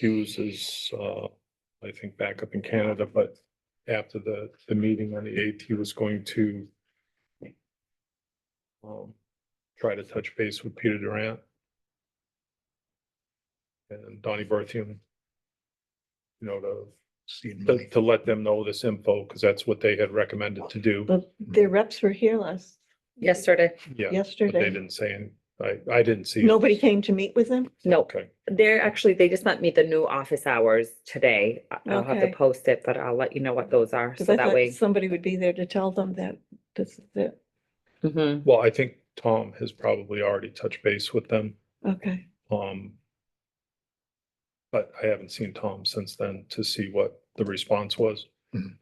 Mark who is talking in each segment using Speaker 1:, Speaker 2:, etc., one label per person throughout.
Speaker 1: Hughes is, uh, I think back up in Canada, but after the, the meeting on the eighth, he was going to um, try to touch base with Peter Durant and Donnie Berthium. You know, to
Speaker 2: Seed
Speaker 1: to,
Speaker 2: money.
Speaker 1: to let them know this info, because that's what they had recommended to do.
Speaker 3: But their reps were here last,
Speaker 4: Yesterday,
Speaker 1: Yeah, but they
Speaker 3: yesterday.
Speaker 1: didn't say, and I, I didn't see. it.
Speaker 3: Nobody came to meet with them?
Speaker 4: nope.
Speaker 1: Okay,
Speaker 4: They're actually, they just let me the new office hours today. I- I'll have to
Speaker 3: Okay.
Speaker 4: post it, but I'll let you know what those are,
Speaker 3: Because
Speaker 4: so
Speaker 3: I
Speaker 4: that
Speaker 3: thought
Speaker 4: way.
Speaker 3: somebody would be there to tell them that this is it.
Speaker 4: Mhm.
Speaker 1: well, I think Tom has probably already touched base with them,
Speaker 3: Okay,
Speaker 1: um. But I haven't seen Tom since then to see what the response was.
Speaker 2: Mhm.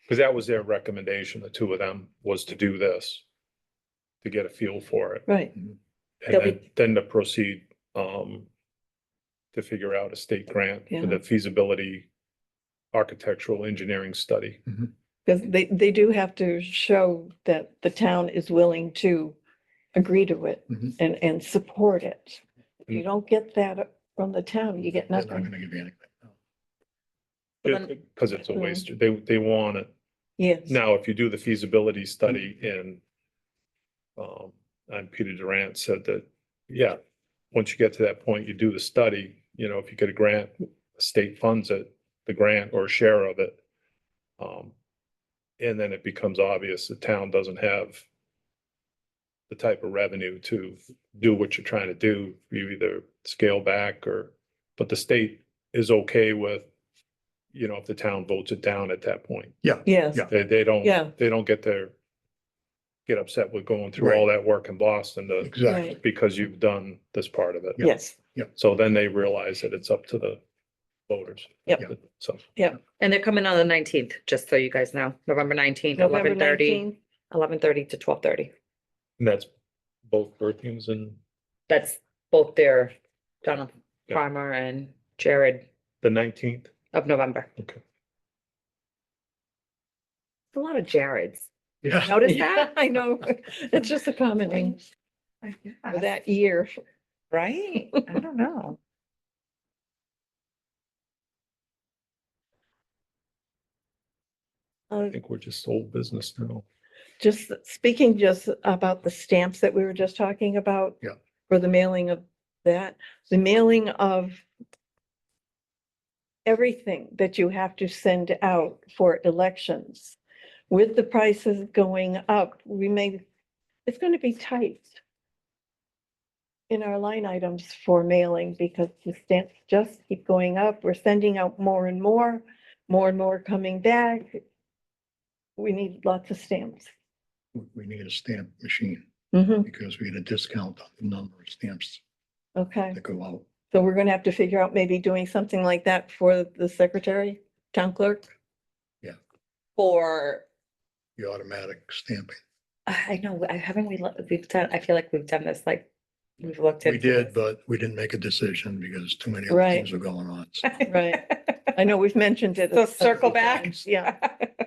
Speaker 1: Because that was their recommendation, the two of them, was to do this. To get a feel for it,
Speaker 3: right.
Speaker 1: and
Speaker 4: They'll be-
Speaker 1: then, then to proceed, um. To figure out a state grant for
Speaker 3: Yeah.
Speaker 1: the feasibility architectural engineering study.
Speaker 3: Because they, they do have to show that the town is willing to agree to it
Speaker 2: Mhm.
Speaker 3: and, and support it. If you
Speaker 1: Mm.
Speaker 3: don't get that from the town, you get
Speaker 2: They're not
Speaker 3: nothing.
Speaker 2: gonna give you anything.
Speaker 4: Well, then-
Speaker 1: Because it's a
Speaker 4: Mm-hmm.
Speaker 3: Mm.
Speaker 1: waste, they, they want it.
Speaker 3: Yes.
Speaker 1: Now, if you do the feasibility study in, um, and Peter Durant said that, yeah, once you get to that point, you do the study, you know, if you get a grant, the state funds it, the grant or share of it. Um, and then it becomes obvious the town doesn't have the type of revenue to do what you're trying to do. You either scale back or, but the state is okay with, you know, if the town votes it down at that point.
Speaker 3: Yes,
Speaker 2: Yeah.
Speaker 1: They, they don't,
Speaker 3: Yeah.
Speaker 1: they don't get their, get upset with going through all that work in Boston to,
Speaker 2: Exactly.
Speaker 3: Right.
Speaker 1: because you've done this part of it.
Speaker 3: yes.
Speaker 1: So then they realize that it's up to the voters.
Speaker 3: Yep.
Speaker 1: So,
Speaker 4: And they're coming on the nineteenth, just so you guys know, November nineteenth,
Speaker 3: November
Speaker 4: eleven thirty,
Speaker 3: 19th,
Speaker 4: eleven thirty to twelve thirty.
Speaker 1: and that's both Berthiums and
Speaker 4: That's both their Donald
Speaker 1: Yeah.
Speaker 4: Farmer and Jared
Speaker 1: the nineteenth.
Speaker 4: of November.
Speaker 1: Okay.
Speaker 4: A lot of Jareds.
Speaker 2: Yeah.
Speaker 4: Notice
Speaker 3: Yeah,
Speaker 4: that?
Speaker 3: I know. It's just a common name for that year.
Speaker 4: Right? I don't know.
Speaker 3: Uh, Um,
Speaker 1: I think we're just old business now.
Speaker 3: Just speaking just about the stamps that we were just talking about.
Speaker 2: Yeah.
Speaker 3: For the mailing of that, the mailing of everything that you have to send out for elections. With the prices going up, we may, it's going to be tight in our line items for mailing because the stamps just keep going up. We're sending out more and more, more and more coming back. We need lots of stamps.
Speaker 2: We- We need a stamp machine
Speaker 3: Mm-hmm,
Speaker 2: because we get a discount on the number of stamps
Speaker 3: okay.
Speaker 2: that go out.
Speaker 3: So we're gonna have to figure out maybe doing something like that for the secretary, town clerk?
Speaker 4: For
Speaker 2: The automatic stamping.
Speaker 4: I I know, I haven't, we, lo- we've done, I feel like we've done this, like, we've looked at.
Speaker 2: We did, but we didn't make a decision because too many other
Speaker 3: Right.
Speaker 2: things were going on. So
Speaker 3: Right. I know we've mentioned it. a
Speaker 4: So
Speaker 3: couple
Speaker 4: circle back.
Speaker 3: times. Yeah,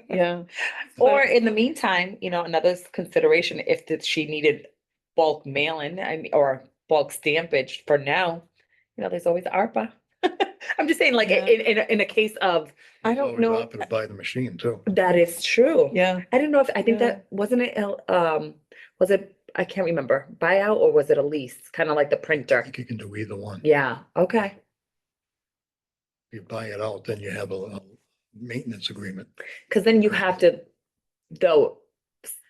Speaker 3: yeah.
Speaker 4: Or in the meantime, you know, another s- consideration, if that she needed bulk mailing, I mean, or bulk stampage for now, you know, there's always ARPA. I'm just saying, like,
Speaker 3: Yeah.
Speaker 4: in, in, a- in a case of,
Speaker 3: I
Speaker 2: it's
Speaker 3: don't
Speaker 2: always
Speaker 3: know.
Speaker 2: opted to Buy the machine too.
Speaker 4: that is true.
Speaker 3: Yeah,
Speaker 4: I don't know if, I think
Speaker 3: Yeah.
Speaker 4: that, wasn't it, el- um, was it, I can't remember, buyout or was it a lease, kind of like the
Speaker 2: I
Speaker 4: printer?
Speaker 2: think you can do either one.
Speaker 4: Yeah, okay.
Speaker 2: You buy it out, then you have a, a maintenance agreement.
Speaker 4: Cause then you have to, though,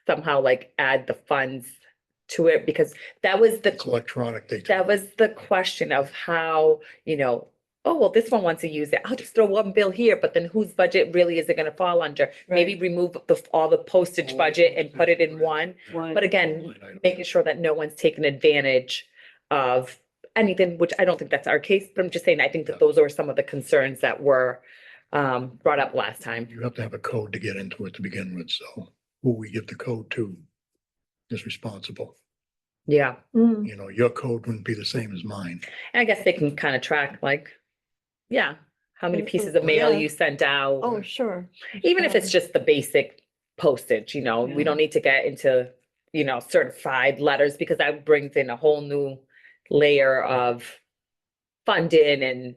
Speaker 4: somehow like add the funds to it, because that was
Speaker 2: It's
Speaker 4: the,
Speaker 2: electronic. They.
Speaker 4: that was the question of how, you know, oh, well, this one wants to use it. I'll just throw one bill here, but then whose budget really is it gonna fall under? Maybe remove the, all the postage
Speaker 2: All the
Speaker 4: budget and put it in
Speaker 2: postage, right.
Speaker 4: one,
Speaker 3: One.
Speaker 4: but again,
Speaker 2: Line item.
Speaker 4: making sure that no one's taken advantage of anything, which I don't think that's our case, but I'm just saying, I think that those are some of the concerns that were um, brought up last time.
Speaker 2: You have to have a code to get into it to begin with, so who we give the code to is responsible.
Speaker 4: Yeah.
Speaker 3: Mm,
Speaker 2: You know, your code wouldn't be the same as mine.
Speaker 4: And I guess they can kind of track like, yeah, how many
Speaker 3: Mm, mm,
Speaker 4: pieces of mail
Speaker 3: yeah.
Speaker 4: you sent out,
Speaker 3: Oh, sure.
Speaker 4: even if it's
Speaker 3: um,
Speaker 4: just the basic postage, you know, we
Speaker 3: Yeah.
Speaker 4: don't need to get into, you know, certified letters because that brings in a whole new layer of funding and